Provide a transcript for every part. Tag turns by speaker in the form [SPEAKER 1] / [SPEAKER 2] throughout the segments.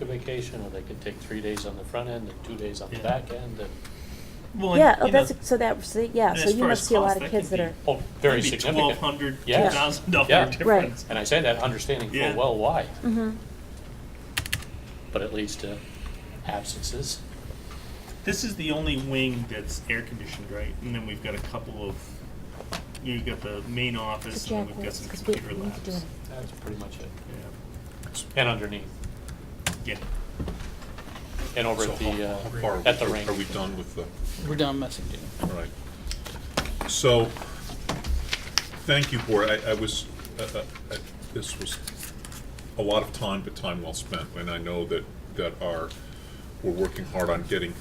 [SPEAKER 1] a vacation, or they could take three days on the front end and two days on the
[SPEAKER 2] Yeah.
[SPEAKER 1] back end, and,
[SPEAKER 2] Well, and,
[SPEAKER 3] Yeah, oh,
[SPEAKER 2] you know,
[SPEAKER 3] that's, so that, so yeah,
[SPEAKER 2] and
[SPEAKER 3] so
[SPEAKER 2] as
[SPEAKER 3] you
[SPEAKER 2] far
[SPEAKER 3] must
[SPEAKER 2] as
[SPEAKER 3] see a
[SPEAKER 2] cost,
[SPEAKER 3] lot of
[SPEAKER 2] that
[SPEAKER 3] kids
[SPEAKER 2] could
[SPEAKER 3] that
[SPEAKER 2] be
[SPEAKER 3] are,
[SPEAKER 1] oh, very
[SPEAKER 2] maybe twelve
[SPEAKER 1] significant.
[SPEAKER 2] hundred, two
[SPEAKER 1] Yes.
[SPEAKER 2] thousand dollar
[SPEAKER 1] Yeah.
[SPEAKER 2] difference.
[SPEAKER 1] And I say that understanding full
[SPEAKER 2] Yeah.
[SPEAKER 1] well why,
[SPEAKER 3] mhm.
[SPEAKER 1] but it leads to absences.
[SPEAKER 2] This is the only wing that's air conditioned, right? And then we've got a couple of, you've got the main office,
[SPEAKER 3] It's
[SPEAKER 2] and then we've got
[SPEAKER 3] Japanese,
[SPEAKER 2] some
[SPEAKER 3] 'cause we-
[SPEAKER 2] computer
[SPEAKER 3] we need to do
[SPEAKER 2] labs.
[SPEAKER 1] That's pretty much it.
[SPEAKER 2] Yeah.
[SPEAKER 1] And underneath,
[SPEAKER 2] Yeah.
[SPEAKER 1] and over
[SPEAKER 4] So
[SPEAKER 1] at
[SPEAKER 4] how-
[SPEAKER 1] the, uh,
[SPEAKER 4] how far are
[SPEAKER 1] at the
[SPEAKER 4] we-
[SPEAKER 1] rink.
[SPEAKER 4] Are we done with the,
[SPEAKER 5] We're done messaging.
[SPEAKER 4] all right. So, thank you, board. I, I was, uh, uh, I- this was a lot of time, but time well spent. And I know that, that our, we're working hard on getting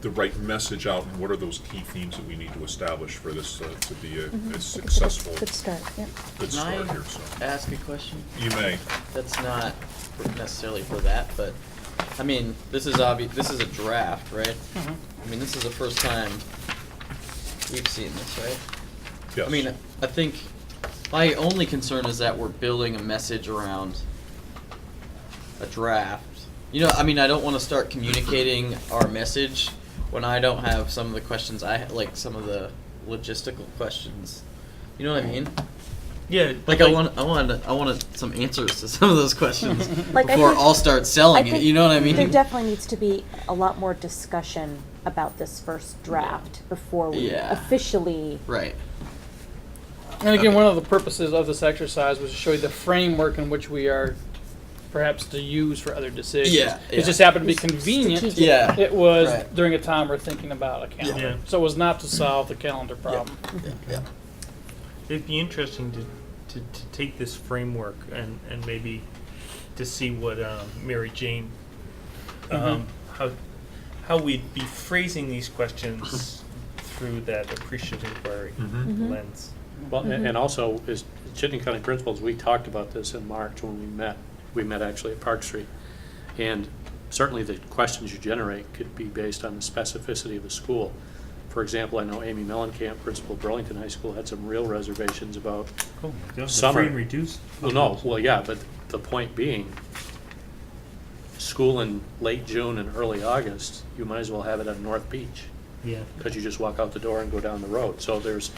[SPEAKER 4] the right message out and what are those key themes that we need to establish for this uh, to be a-
[SPEAKER 6] Mm-hmm.
[SPEAKER 4] a
[SPEAKER 3] It's a good-
[SPEAKER 4] successful,
[SPEAKER 3] Good start, yeah.
[SPEAKER 4] good
[SPEAKER 6] Can I
[SPEAKER 4] start here, so.
[SPEAKER 6] ask a question?
[SPEAKER 4] You may.
[SPEAKER 6] That's not necessarily for that, but, I mean, this is obvi, this is a draft, right?
[SPEAKER 3] Mm-hmm.
[SPEAKER 6] I mean, this is the first time we've seen this, right?
[SPEAKER 4] Yes.
[SPEAKER 6] I mean, I think my only concern is that we're building a message around a draft. You know, I mean, I don't want to start communicating our message when I don't have some of the questions I, ha- like, some of the logistical questions. You know what I mean?
[SPEAKER 2] Yeah.
[SPEAKER 6] Like I want, I wanted, I wanted some answers to some of those questions
[SPEAKER 3] Like, I
[SPEAKER 6] before
[SPEAKER 3] think-
[SPEAKER 6] I'll start selling it. You know what I mean?
[SPEAKER 3] There definitely needs to be a lot more discussion about this first draft before we
[SPEAKER 6] Yeah.
[SPEAKER 3] officially,
[SPEAKER 6] right.
[SPEAKER 5] And again,
[SPEAKER 6] Okay.
[SPEAKER 5] one of the purposes of this exercise was to show you the framework in which we are perhaps to use for other decisions.
[SPEAKER 6] Yeah,
[SPEAKER 5] It
[SPEAKER 6] yeah.
[SPEAKER 5] just happened to be
[SPEAKER 3] It's
[SPEAKER 5] convenient.
[SPEAKER 3] strategic.
[SPEAKER 6] Yeah.
[SPEAKER 5] It was
[SPEAKER 6] Right.
[SPEAKER 5] during a time we're thinking about a calendar.
[SPEAKER 2] Yeah.
[SPEAKER 5] So it was not to solve the calendar problem.
[SPEAKER 6] Yeah, yeah.
[SPEAKER 2] It'd be interesting to, to, to take this framework and, and maybe to see what um, Mary Jane,
[SPEAKER 3] Mm-hmm.
[SPEAKER 2] um, how, how we'd be phrasing these questions through that appreciative inquiry
[SPEAKER 4] Mhm.
[SPEAKER 3] Mm-hmm.
[SPEAKER 2] lens.
[SPEAKER 1] Well, and and also, as Chittenden County principals, we talked about this in March when we met. We met actually at Park Street. And certainly, the questions you generate could be based on the specificity of the school. For example, I know Amy Mellencamp, principal of Burlington High School, had some real reservations about,
[SPEAKER 2] Oh my God,
[SPEAKER 1] Summer.
[SPEAKER 2] free and reduced.
[SPEAKER 1] well, no, well, yeah, but the point being, school in late June and early August, you might as well have it on North Beach
[SPEAKER 2] Yeah.
[SPEAKER 1] because you just walk out the door and go down the road. So there's,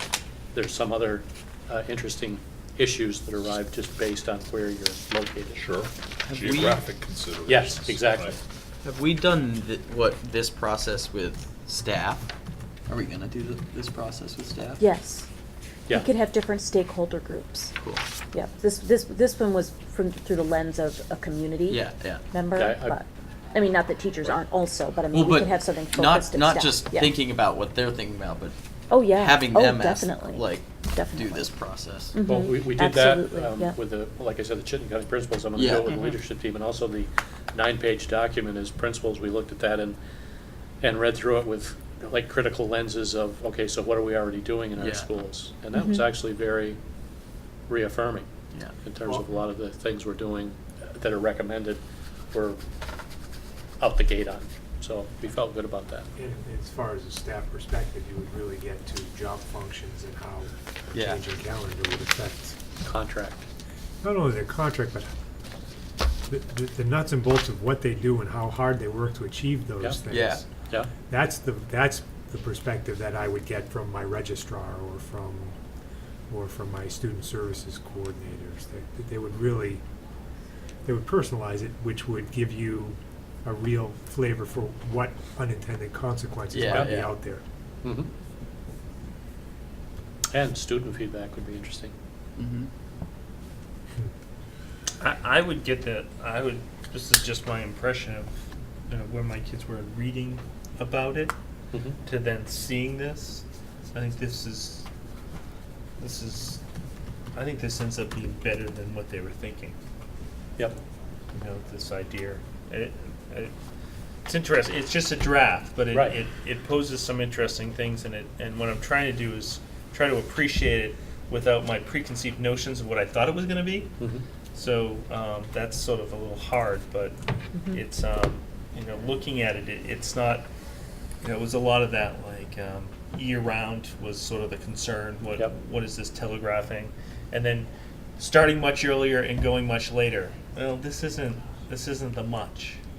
[SPEAKER 1] there's some other uh, interesting issues that arrive just based on where you're located.
[SPEAKER 4] Sure.
[SPEAKER 6] we-
[SPEAKER 4] Geographic considerations.
[SPEAKER 1] Yes, exactly.
[SPEAKER 4] right.
[SPEAKER 6] Have we done th- what this process with staff? Are we gonna do th- this process with staff?
[SPEAKER 3] yes.
[SPEAKER 1] Yeah.
[SPEAKER 3] We could have different stakeholder groups.
[SPEAKER 6] Cool.
[SPEAKER 3] Yeah, this, this, this one was from, through the lens of a community.
[SPEAKER 6] Yeah, yeah.
[SPEAKER 3] Member,
[SPEAKER 1] Yeah, I-
[SPEAKER 3] but, I mean, not that teachers aren't also, but I
[SPEAKER 6] Well,
[SPEAKER 3] mean, we
[SPEAKER 6] but
[SPEAKER 3] could have something focused
[SPEAKER 6] not
[SPEAKER 3] at
[SPEAKER 6] not
[SPEAKER 3] staff.
[SPEAKER 6] just
[SPEAKER 3] Yeah.
[SPEAKER 6] thinking about what they're thinking about, but
[SPEAKER 3] Oh, yeah.
[SPEAKER 6] having
[SPEAKER 3] Oh,
[SPEAKER 6] them ask,
[SPEAKER 3] definitely.
[SPEAKER 6] like
[SPEAKER 3] Definitely.
[SPEAKER 6] do this process.
[SPEAKER 3] Mhm.
[SPEAKER 1] Well, we, we did that
[SPEAKER 3] Absolutely,
[SPEAKER 1] um,
[SPEAKER 3] yeah. Mm-hmm.
[SPEAKER 1] with the, like I said, the Chittenden County principals, I'm gonna do
[SPEAKER 6] Yeah.
[SPEAKER 1] it with the leadership team, and also the nine-page document as principals, we looked at that and, and read through it with, like, critical lenses of, okay, so what are we already doing in our
[SPEAKER 6] Yeah.
[SPEAKER 1] schools? And
[SPEAKER 3] Mm-hmm.
[SPEAKER 1] that was actually very reaffirming
[SPEAKER 6] Yeah.
[SPEAKER 1] in terms of a lot of the things we're doing that are recommended, we're out the gate on, so we felt good about that.
[SPEAKER 7] And as far as a staff perspective, you would really get to job functions and how
[SPEAKER 6] Yeah.
[SPEAKER 7] changing calendar would affect
[SPEAKER 1] Contract.
[SPEAKER 7] not only their contract, but the, the, the nuts and bolts of what they do and how hard they work to achieve
[SPEAKER 1] Yeah.
[SPEAKER 7] those things.
[SPEAKER 6] Yeah.
[SPEAKER 1] Yeah,
[SPEAKER 7] That's the, that's the perspective that I would get from my registrar or from, or from my student services coordinators. That, that they would really, they would personalize it, which would give you a real flavor for what unintended consequences
[SPEAKER 6] Yeah,
[SPEAKER 7] might be
[SPEAKER 6] yeah.
[SPEAKER 7] out there.
[SPEAKER 1] mhm. And student feedback would be interesting.
[SPEAKER 6] Mm-hmm.
[SPEAKER 2] I, I would get that. I would. This is just my impression of you know, where my kids were reading about it
[SPEAKER 1] Mhm.
[SPEAKER 2] to then seeing this. I think this is. This is. I think this ends up being better than what they were thinking.
[SPEAKER 1] Yep.
[SPEAKER 2] You know, this idea. It, it, it's interesting. It's just a draft, but it,
[SPEAKER 1] Right.
[SPEAKER 2] it, it poses some interesting things in it. And what I'm trying to do is try to appreciate it without my preconceived notions of what I thought it was going to be.
[SPEAKER 1] Mhm.
[SPEAKER 2] So um, that's sort of a little hard, but it's um, you know looking at it, it, it's not. You know, it was a lot of that like um, year round was sort of the concern. What
[SPEAKER 1] Yep.
[SPEAKER 2] what is this telegraphing, and then starting much earlier and going much later. Well, this isn't this isn't the much.